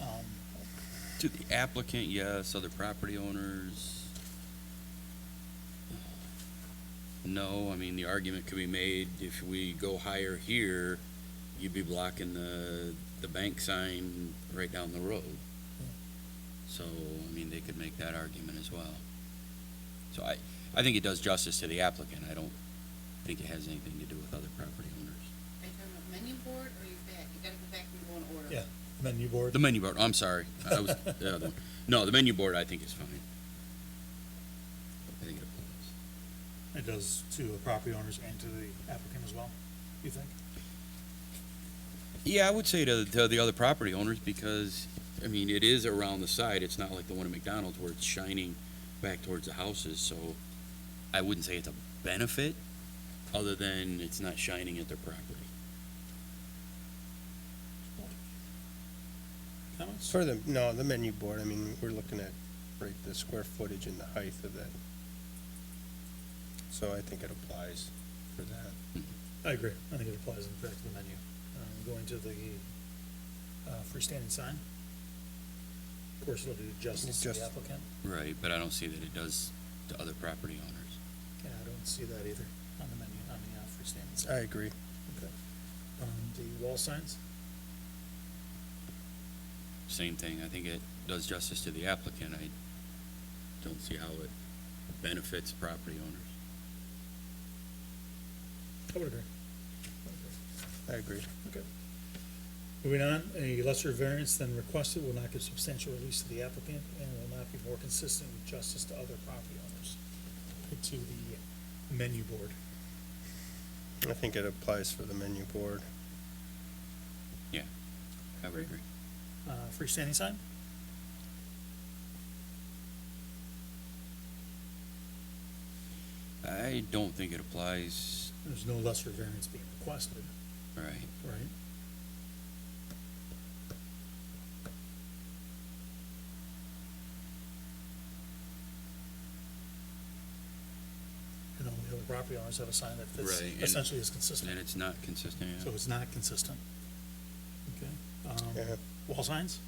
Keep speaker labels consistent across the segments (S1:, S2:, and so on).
S1: um,
S2: To the applicant, yes, other property owners? No, I mean, the argument could be made, if we go higher here, you'd be blocking the, the bank sign right down the road. So, I mean, they could make that argument as well. So I, I think it does justice to the applicant, I don't think it has anything to do with other property owners.
S3: Are you talking about menu board or you back? You gotta go back and go in order.
S1: Yeah. menu board.
S2: The menu board, I'm sorry. I was, the other one. No, the menu board I think is fine. I think it applies.
S1: It does to the property owners and to the applicant as well, you think?
S2: Yeah, I would say to, to the other property owners because, I mean, it is around the side. It's not like the one at McDonald's where it's shining back towards the houses, so I wouldn't say it's a benefit other than it's not shining at their property.
S1: Comments?
S4: For the, no, the menu board, I mean, we're looking at, right, the square footage and the height of that. So I think it applies for that.
S1: I agree. I think it applies in fact to the menu. Um, going to the, uh, freestanding sign. Of course, it'll do justice to the
S4: Just-
S1: applicant.
S2: Right, but I don't see that it does to other property owners.
S1: Yeah, I don't see that either on the menu, on the, uh, freestanding sign.
S4: I agree.
S1: Um, the wall signs,
S2: Same thing. I think it does justice to the applicant. I don't see how it benefits property owners.
S1: I would agree.
S4: I agree.
S1: Moving on, a lesser variance than requested will not give substantial release to the applicant and will not be more consistent with justice to other property owners. To the menu board.
S4: I think it applies for the menu board.
S2: I would agree.
S1: Uh, freestanding sign?
S2: I don't think it applies,
S1: There's no lesser variance being requested,
S2: right?
S1: right? And all the other property owners have a sign that fits,
S2: Right, and-
S1: essentially is consistent,
S2: And it's not consistent,
S1: so
S2: yeah.
S1: it's not consistent. Okay, um,
S4: Yeah,
S1: wall signs?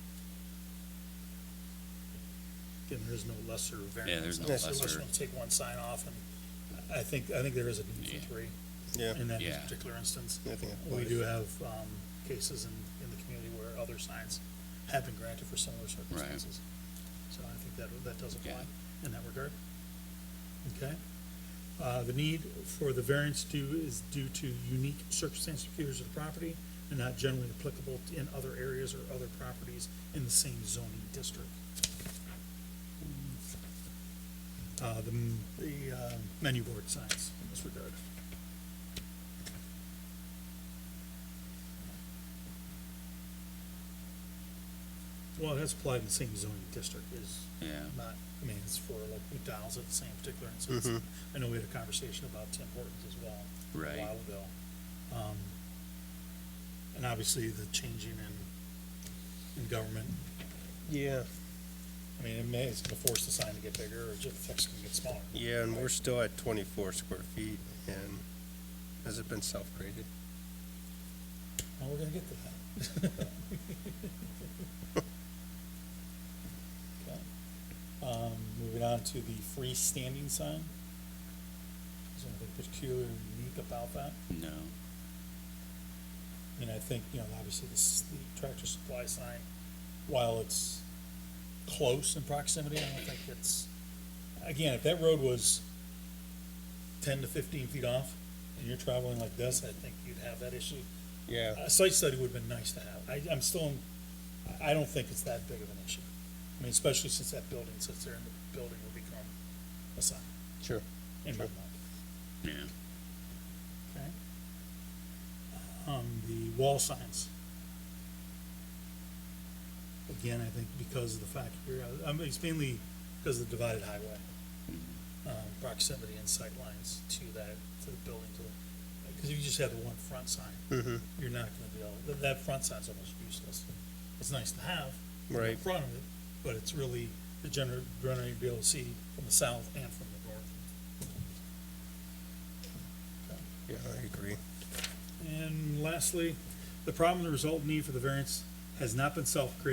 S1: Again, there is no lesser variance.
S2: there's no
S1: unless- Unless
S2: lesser.
S1: you want to take one sign off, and I think, I think there is a need
S2: Yeah.
S1: for three
S4: yeah,
S1: in that
S2: Yeah.
S1: particular instance.
S4: I think it
S1: We
S4: applies.
S1: do have, um, cases in, in the community where other signs have been granted for similar circumstances. So I think that, that does apply in that regard. Okay? Uh, the need for the variance due is due to unique circumstances and features of the property and not generally applicable in other areas or other properties in the same zoning district. Uh, the, m- the, uh, menu board signs in this regard. Well, it has applied in the same zoning district is
S2: Yeah,
S1: not, I mean, it's for like McDonald's at the same particular instance. I know we had a conversation about Tim Hortons as well.
S2: Right.
S1: A while ago. Um, and obviously the changing in, in government,
S4: Yeah,
S1: I mean, it may, it's gonna force the sign to get bigger or just fix it to get smaller.
S4: yeah, and we're still at twenty-four square feet, and has it been self-graded?
S1: Now, we're gonna get to that. Okay. Um, moving on to the freestanding sign. Is there anything particularly unique about that?
S2: no,
S1: I mean, I think, you know, obviously this, the tractor supply sign, while it's close in proximity, I don't think it's, again, if that road was ten to fifteen feet off and you're traveling like this, I think you'd have that issue.
S4: Yeah,
S1: A site study would've been nice to have. I, I'm still, I, I don't think it's that big of an issue. I mean, especially since that building sits there and the building will become a sign
S4: sure.
S1: in my
S4: Sure.
S1: mind.
S2: yeah.
S1: Okay. Um, the wall signs. Again, I think because of the fact here, I mean, um, it's mainly because of the divided highway. Um, proximity and sight lines to that, to the building, to the, because if you just have the one front sign,
S4: Mm-hmm,
S1: you're not gonna be able, that, that front sign's almost useless. It's nice to have. in
S4: Right.
S1: Front of it, but it's really, the general, generally you'll be able to see from the south and from the north.
S4: yeah, I agree.
S1: And lastly, the problem, the result need for the variance has not been self-created